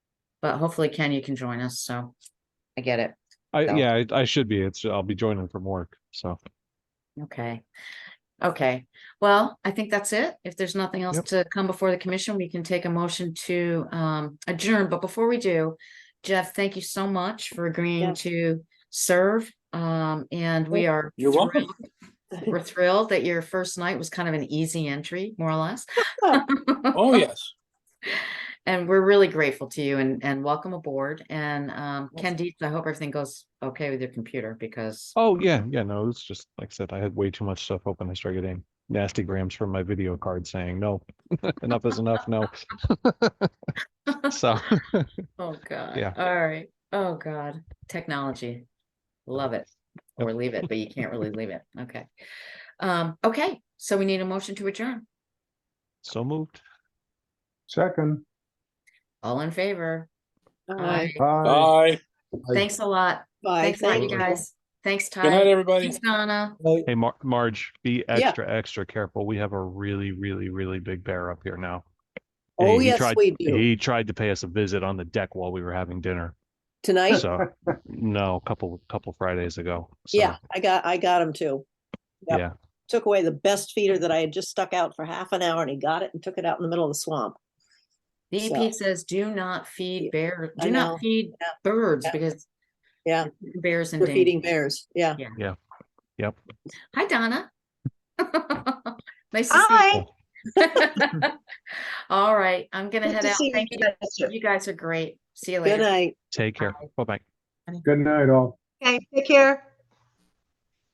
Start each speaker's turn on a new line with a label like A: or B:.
A: But hopefully Ken, you can join us, so I get it.
B: I,
A: No.
B: yeah, I, I should be. It's, I'll be joining from work, so.
A: Okay. Okay, well, I think that's it. If there's nothing else
B: Yep.
A: to come before the commission, we can take a motion to um adjourn. But before we do, Jeff, thank you so much for agreeing
C: Yeah.
A: to serve. Um, and we are.
D: You're welcome.
A: thrilled- We're thrilled that your first night was kind of an easy entry, more or less.
D: Oh, yes.
A: And we're really grateful to you and and welcome aboard. And um, Ken Dietz, I hope everything goes okay with your computer because
B: Oh, yeah, yeah, no, it's just, like I said, I had way too much stuff open. I started getting nasty grams from my video card saying, no, enough is enough, no. So,
A: Oh, God.
B: Yeah.
A: All right. Oh, God. Technology. Love it.
B: Yep.
A: Or leave it, but you can't really leave it. Okay. Um, okay, so we need a motion to adjourn.
B: so moved.
E: Second.
A: All in favor? Aye.
E: Bye.
D: Bye.
A: Thanks a lot.
C: Bye.
A: Thanks a lot, you
C: Thank
A: guys. Thanks,
D: Good night,
A: Ty.
D: everybody.
A: Thanks, Donna.
B: Hey, Mar- Marge, be
C: Yeah.
B: extra, extra careful. We have a really, really, really big bear up here now.
C: Oh,
B: He- he
C: yes,
B: tried-
C: we do.
B: He tried to pay us a visit on the deck while we were having dinner.
C: Tonight,
B: So, no, a couple, couple Fridays ago. So,
C: yeah, I got, I got him too. yep.
B: Yeah,
C: Took away the best feeder that I had just stuck out for half an hour and he got it and took it out in the middle of the swamp.
A: DEP says do not feed bear,
C: I
A: do
C: know.
A: not feed
C: Yeah.
A: birds
C: Yeah.
A: because
C: Yeah.
A: bears and
C: They're feeding bears. Yeah.
B: yep.
A: Hi, Donna. Nice to see you. All right, I'm gonna
C: Good
A: head
C: to
A: out.
C: see you
A: Thank you.
C: guys, too.
A: You guys are great. See you
C: Good
A: later.
C: night.
B: Take care. Bye bye.
E: Good night, all.
F: Okay, take care.